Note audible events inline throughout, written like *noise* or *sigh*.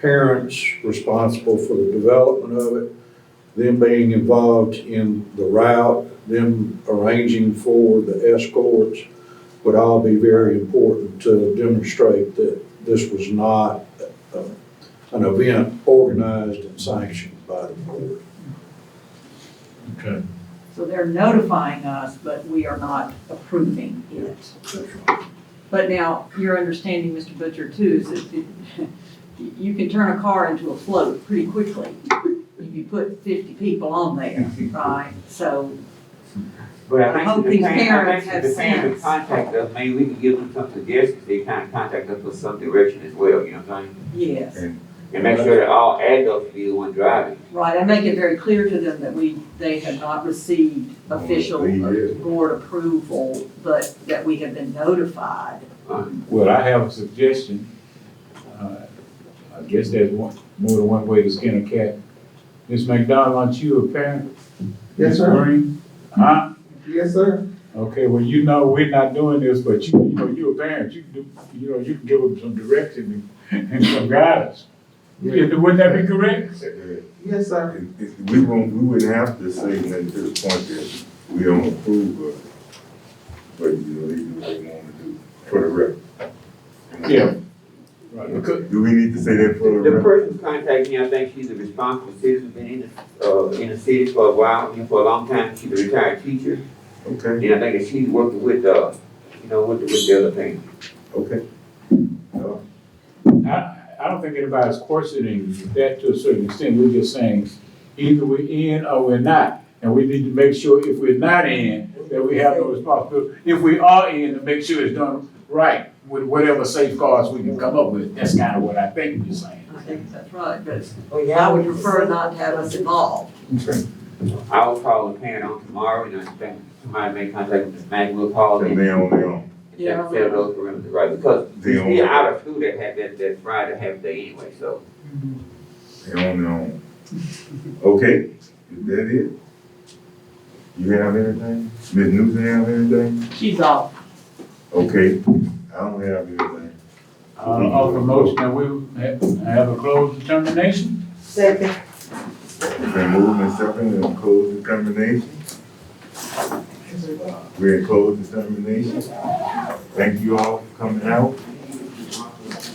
parents responsible for the development of it, them being involved in the route, them arranging for the escorts would all be very important to demonstrate that this was not uh, an event organized and sanctioned by the board. Okay. So they're notifying us, but we are not approving it. But now, your understanding, Mr. Butcher, too, is that it- *laughs* you can turn a car into a float pretty quickly if you put fifty people on there, right? So, But I I hope think these the parents parents, I have think the sense. parents would contact us, maybe we can give them some suggestions, they kind of contact us for some direction as well, you know what I'm saying? yes, And make sure that all adults be the one driving. right, I make it very clear to them that we, they have not received official board approval, but that we have been notified. Well, I have a suggestion. Uh, I guess there's one, more than one way to skin a cat. Ms. McDonald, aren't you a parent? Yes, sir. Ms. Green? Huh? Yes, sir. Okay, well, you know, we're not doing this, but you, you know, you're a parent, you can do, you know, you can give them some direction and, and some guidance. Yeah, Wouldn't that be correct? Yes, sir. It- it- We won't, we wouldn't have to say nothing to the point that we don't approve of it. But, you know, they do what they want to do for the record. Yeah. Right, because- Do we need to say that for the The record? person contacting me, I think she's a responsible citizen, been in the, uh, in the city for a while, and for a long time, she's a retired teacher. Okay, And I think that she's working with, uh, you know, with, with the other thing. okay. Uh, I, I don't think anybody's questioning that to a certain extent, we're just saying, either we're in or we're not. And we need to make sure if we're not in, that we have no responsibility, if we are in, to make sure it's done right with whatever safeguards we can come up with, that's kind of what I think you're saying. I think that's right, but I would prefer not to have us involved. I will call the parent on tomorrow, and I think somebody may contact Ms. Maggie, we'll call them. From now on, now, Yeah, set those perimeters, right, because they we own, out of school that had that, that Friday half day anyway, so. they own, they own. Okay, is that it? You have anything? Ms. Newsom have anything? She's off. Okay, I don't have anything. Uh, offer motion, that we have- have a closed determination? Second. It's been moved and seconded and closed determination. We're in closed determination. Thank you all for coming out.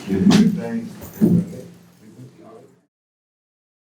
Is there anything?